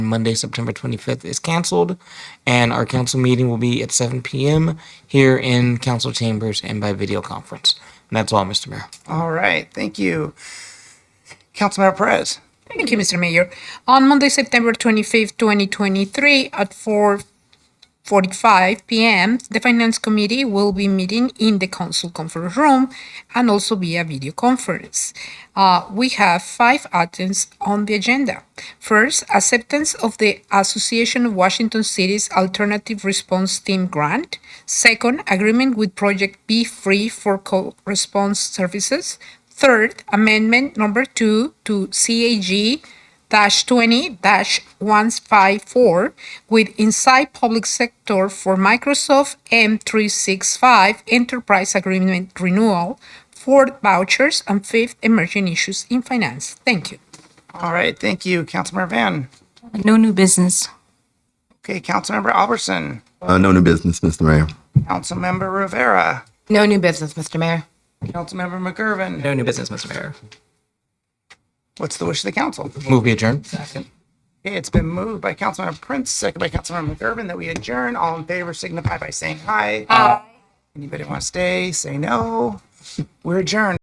Monday, September 25th is canceled, and our council meeting will be at 7 p.m. here in council chambers and by video conference. And that's all, Mr. Mayor. All right, thank you. Councilmember Perez. Thank you, Mr. Mayor. On Monday, September 25th, 2023, at 4:45 p.m., the Finance Committee will be meeting in the Council Conference Room and also via video conference. Uh, We have five items on the agenda. First, acceptance of the Association of Washington Cities Alternative Response Team Grant. Second, agreement with Project Be Free for Co- Response Services. Third, amendment number two to CAG dash twenty dash one five four with Inside Public Sector for Microsoft M three six five Enterprise Agreement Renewal, fourth vouchers, and fifth emerging issues in finance. Thank you. All right, thank you, Councilmember Van. No new business. Okay, Councilmember Albertson, Uh, no new business, Mr. Mayor. Councilmember Rivera, No new business, Mr. Mayor. Councilmember McGurven. No new business, Mr. Mayor. What's the wish of the council? Move be adjourned. Okay, it's been moved by Councilmember Prince, second by Councilmember McGurven that we adjourn. All in favor signify by saying aye. Aye. Anybody want to stay? Say no. We're adjourned.